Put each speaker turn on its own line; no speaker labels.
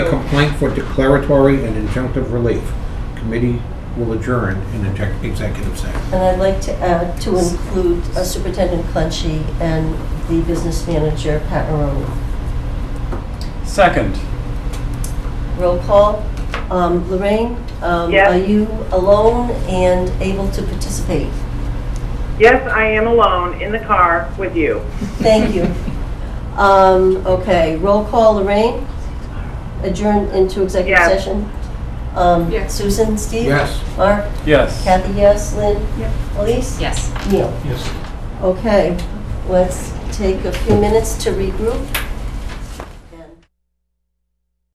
applying for declaratory and injunctive relief. Committee will adjourn in exec- executive session.
And I'd like to add to include uh, Superintendent Clenchey and the business manager, Pat Maroni.
Second.
Roll call. Um, Lorraine? um,
Yes.
Are you alone and able to participate?
Yes, I am alone in the car with you.
Thank you. Um, Okay, roll call, Lorrain? Adjourn into executive
Yes.
session? Um,
Yes.
Susan, Steve?
Yes.
Mark?
Yes.
Kathy, yes. Lynn?
Yes.
Elise?
Yes.
Neil? Yes. Okay, let's take a few minutes to regroup.